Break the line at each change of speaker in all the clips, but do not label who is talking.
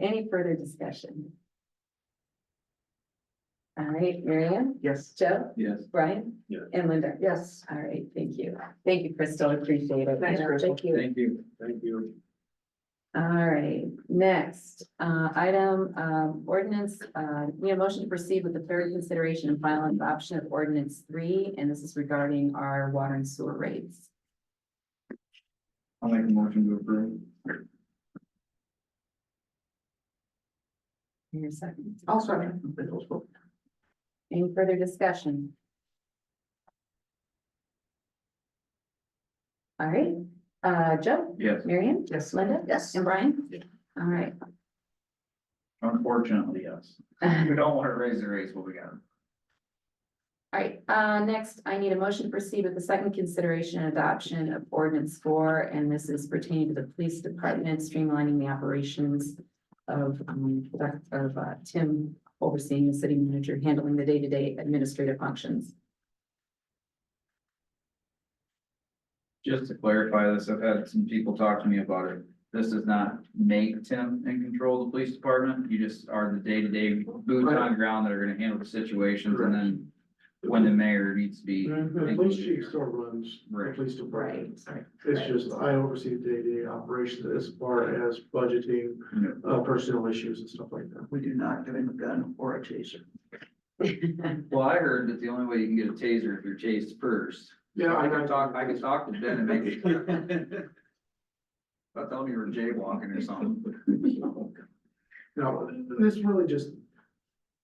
Any further discussion? All right, Marianne,
Yes.
Joe,
Yes.
Brian?
Yeah.
And Linda?
Yes.
All right, thank you. Thank you, Crystal, appreciate it.
Thanks, Crystal.
Thank you.
Thank you, thank you.
All right, next, uh, item, um, ordinance, uh, we have motion to proceed with the third consideration and final adoption of ordinance three, and this is regarding our water and sewer rates.
I'll make a motion to approve.
In your second,
Also.
any further discussion? All right, uh, Joe,
Yes,
Marion,
Yes.
Linda,
Yes.
and Brian?
Yeah.
All right.
unfortunately, yes. We don't want to raise the rates, but we got to.
All right, uh, next, I need a motion to proceed with the second consideration and adoption of ordinance four, and this is pertaining to the police department streamlining the operations of, um, that- of, uh, Tim overseeing the city manager, handling the day-to-day administrative functions.
Just to clarify this, I've had some people talk to me about it. This does not make Tim in control of the police department. You just are the day-to-day boots on ground that are gonna handle the situations and then when the mayor needs to be,
Mm-hmm.
The police chief still runs the
Right.
police department.
Right.
It's just I oversee the day-to-day operations as far as budgeting, uh, personnel issues and stuff like that.
We do not give him a gun or a taser.
Well, I heard that the only way you can get a taser if you're chased first.
Yeah,
I
I
could
got
talk, I could talk to Ben and make it. clear. I thought you were jaywalking or something.
Now, this really just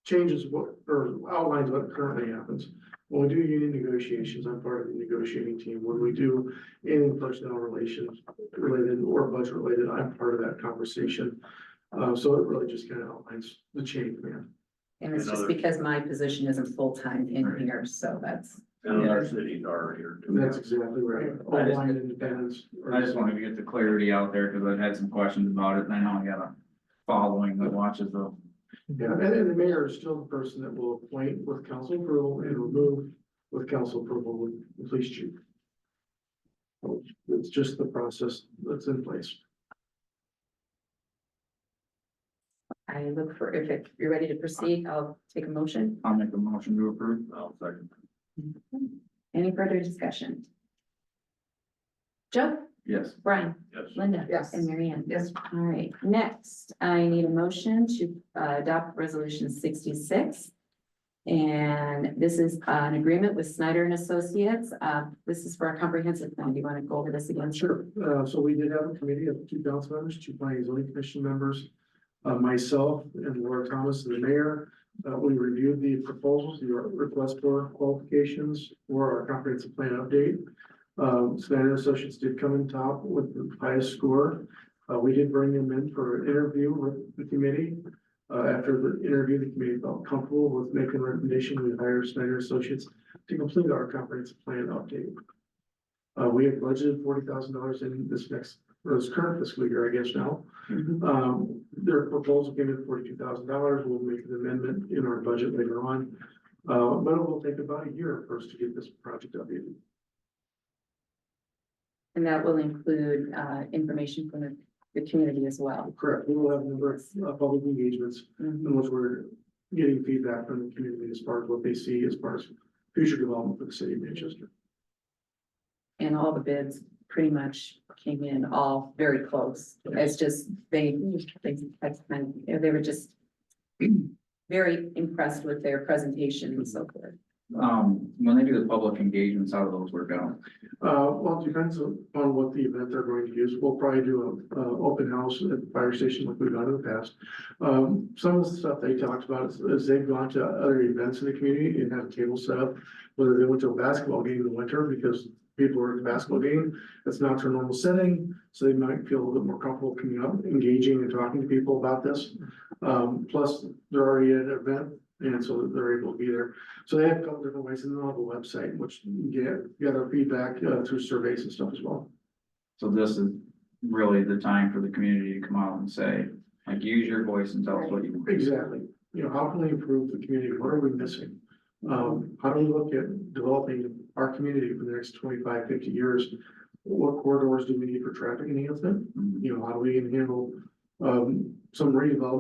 changes what, or outlines what currently happens. When we do union negotiations, I'm part of the negotiating team. When we do any personnel relations related or budget related, I'm part of that conversation. Uh, so it really just kind of outlines the chain, man.
And it's just
Another-
because my position isn't full-time in
Right.
here, so that's,
And our cities are here. too.
That's exactly right.
I just-
Online independence. or-
I just wanted to get the clarity out there because I've had some questions about it and I know I got a following that watches the.
Yeah, and then the mayor is still the person that will appoint with council approval and remove with council approval with the police chief. It's just the process that's in place.
I look for, if it- you're ready to proceed, I'll take a motion.
I'll make a motion to approve.
I'll second.
Any further discussion? Joe,
Yes.
Brian?
Yes.
Linda?
Yes.
And Marianne.
Yes.
All right, next, I need a motion to uh, adopt resolution sixty-six. And this is uh, an agreement with Snyder and Associates. Uh, this is for our comprehensive plan. Do you want to go over this again?
Sure, uh, so we did have a committee of two council members, two planning and zoning commission members, uh, myself and Laura Thomas, the mayor. Uh, we reviewed the proposals, the request for qualifications for our comprehensive plan update. Um, Snyder Associates did come in top with the highest score. Uh, we did bring them in for an interview with the committee. Uh, after the interview, the committee felt comfortable with making a recommendation, we hired Snyder Associates to complete our comprehensive plan update. Uh, we have budgeted forty thousand dollars in this next, or this current fiscal year, I guess now.
Mhm.
Um, their proposal came in forty-two thousand dollars. We'll make an amendment in our budget later on. Uh, but it will take about a year for us to get this project updated.
And that will include uh, information from the, the community as well.
Correct. We will have a number of uh, public engagements
Mhm.
in which we're getting feedback from the community as far as what they see as far as future development for the city of Manchester.
And all the bids pretty much came in all very close. It's just, they, they, that's kind of, they were just very impressed with their presentation and so forth.
Um, when they do the public engagements, how do those work out?
Uh, well, it depends on on what the event they're going to use. We'll probably do a, uh, open house at the fire station like we've done in the past. Um, some of the stuff they talked about is, is they've gone to other events in the community and had a table set up. Whether they went to a basketball game in the winter because people are at the basketball game, it's not their normal setting. So they might feel a little bit more comfortable coming up, engaging and talking to people about this. Um, plus they're already at an event and so they're able to be there. So they have a couple different ways, and they'll have a website, which you get, get our feedback uh, through surveys and stuff as well.
So this is really the time for the community to come out and say, like, use your voice and tell us what you want.
Exactly. You know, how can we improve the community? What are we missing? Um, how do we look at developing our community for the next 25, 50 years? What corridors do we need for traffic enhancement?
Mhm.
You know, how do we handle um, some redevelopment